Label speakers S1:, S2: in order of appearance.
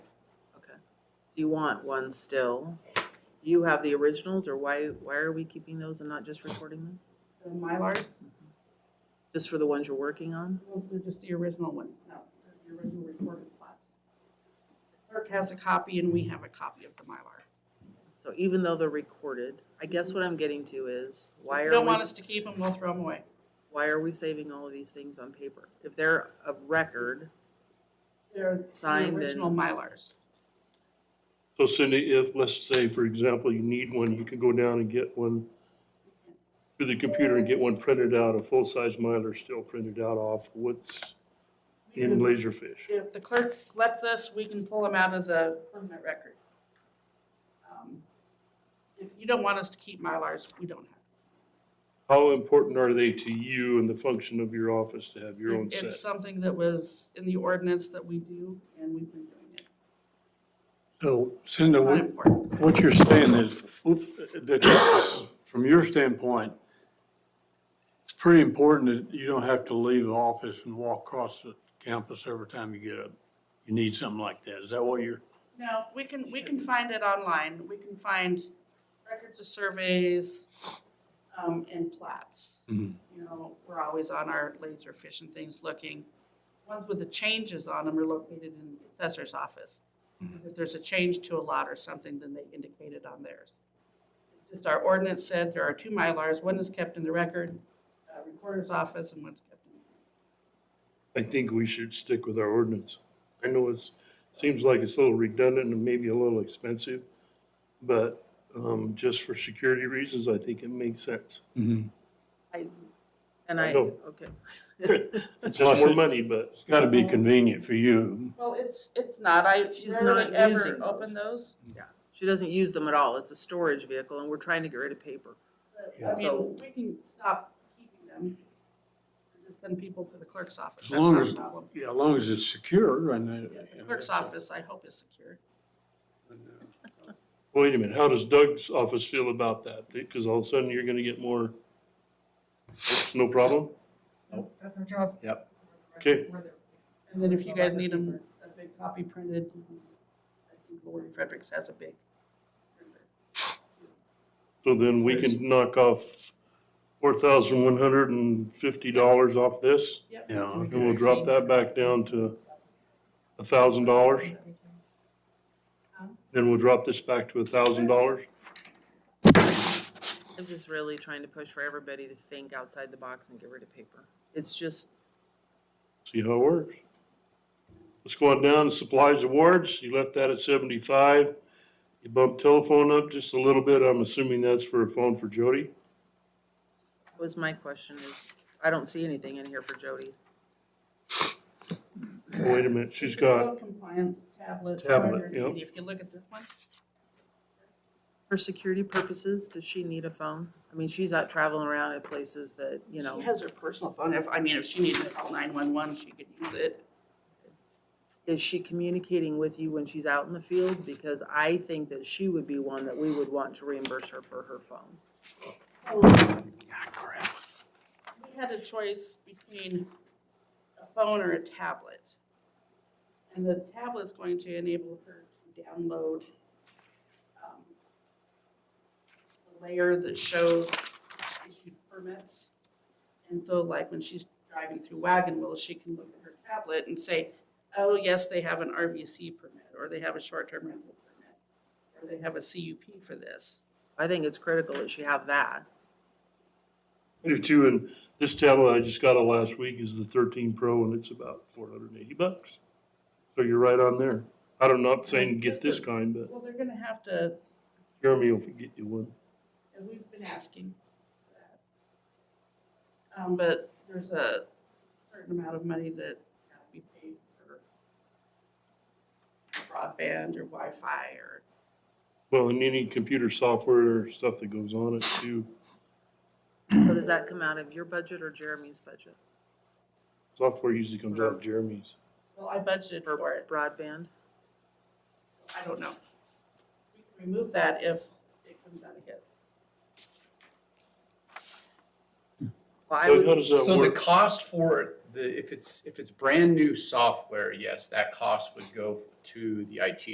S1: you want one still. You have the originals, or why, why are we keeping those and not just recording them?
S2: The Mylars,
S1: Just for the ones you're working on?
S2: well, they're just the original ones, no, they're the original recorded plots. Clerk has a copy and we have a copy of the Mylar.
S1: So even though they're recorded, I guess what I'm getting to is, why
S2: If you
S1: are
S2: don't
S1: we,
S2: want us
S1: s-
S2: to keep them, we'll throw them away.
S1: why are we saving all of these things on paper? If they're a record,
S2: They're the
S1: Signed
S2: original
S1: and-
S2: Mylars.
S3: So Cindy, if, let's say, for example, you need one, you can go down and get one through the computer and get one printed out, a full-size Mylar still printed out off what's in Laserfish.
S2: If the clerk lets us, we can pull them out of the permanent record. Um, If you don't want us to keep Mylars, we don't have.
S3: How important are they to you and the function of your office to have your own
S2: It-
S3: set?
S2: It's something that was in the ordinance that we do, and we've been doing it.
S4: So Cinda,
S2: It's not
S4: what,
S2: important.
S4: what you're saying is, oops, that this is- from your standpoint, it's pretty important that you don't have to leave the office and walk across the campus every time you get up. You need something like that. Is that what you're,
S2: No, we can, we can find it online. We can find records of surveys um, and plats.
S4: Mhm.
S2: You know, we're always on our laser fish and things looking. Ones with the changes on them are located in the assessor's office. If there's a change to a lot or something, then they indicate it on theirs. It's just our ordinance said there are two Mylars. One is kept in the record, uh, recorder's office, and one's kept in the
S3: I think we should stick with our ordinance. I know it's, seems like it's a little redundant and maybe a little expensive, but, um, just for security reasons, I think it makes sense.
S4: it's
S1: I, and I,
S3: No.
S1: okay.
S3: It's just more money, but.
S4: gotta be convenient for you.
S2: Well, it's, it's not. I
S1: She's
S2: rarely
S1: not
S2: ever
S1: using
S2: open
S1: those.
S2: those.
S1: She doesn't use them at all. It's a storage vehicle and we're trying to get rid of paper.
S2: I
S1: So-
S2: mean, we can stop keeping them. Or Just send people to the clerk's office.
S4: As
S2: That's
S4: long
S2: not a
S4: as-
S2: problem.
S4: Yeah, as long as it's secure and.
S2: Yeah,
S4: uh,
S2: The clerk's office, I hope, is secure.
S3: Wait a minute, how does Doug's office feel about that? Because all of a sudden you're gonna get more, it's no problem?
S5: Nope, that's our job.
S6: Yep.
S3: Okay.
S2: And then if you guys need them, a big copy printed, you can- I think Lori Fredericks has a big. printer.
S3: So then we can knock off four thousand one hundred and fifty dollars off this,
S4: Yeah.
S3: and we'll
S4: okay.
S3: drop that back down to a thousand dollars. Then we'll drop this back to a thousand dollars.
S1: I'm just really trying to push for everybody to think outside the box and get rid of paper. It's just,
S3: See how it works. Let's go on down to supplies awards. You left that at seventy-five. You bumped telephone up just a little bit. I'm assuming that's for a phone for Jody.
S1: that was my question is, I don't see anything in here for Jody.
S3: Oh, Wait a minute, she's
S2: Remote
S3: got,
S2: Compliance tablet.
S3: Tablet,
S2: whatever you
S3: yep.
S2: need. If you look at this one,
S1: For security purposes, does she need a phone? I mean, she's out traveling around at places that, you know,
S2: she has her personal phone. If, I mean, if she needed to call nine-one-one, she could use it.
S1: is she communicating with you when she's out in the field? Because I think that she would be one that we would want to reimburse her for her phone.
S4: Ah, crap.
S2: we had a choice between a phone or a tablet. And the tablet's going to enable her to download um, the layer that shows issued permits. And so like when she's driving through Wagon Wheel, she can look at her tablet and say, oh, yes, they have an RVC permit, or they have a short-term rental permit, or they have a CUP for this.
S1: I think it's critical that she have that.
S3: I do too, and this tablet I just got it last week is the thirteen Pro and it's about four hundred and eighty bucks. So you're right on there. I'm not saying get this kind, but
S2: Well, they're gonna have to,
S3: Jeremy will get you one.
S2: and we've been asking for that. Um, but there's a certain amount of money that has to be paid for broadband or Wi-Fi or,
S3: Well, and any computer software or stuff that goes on it too.
S1: So does that come out of your budget or Jeremy's budget
S3: Software usually comes out of Jeremy's.
S2: well, I budgeted for
S1: for
S2: it,
S1: broadband?
S2: I don't know. We can remove that if it comes out of his.
S1: Well, I
S3: Doug,
S1: would
S3: how does that
S6: So the
S3: work?
S6: cost for it, the, if it's, if it's brand new software, yes, that cost would go f- to the IT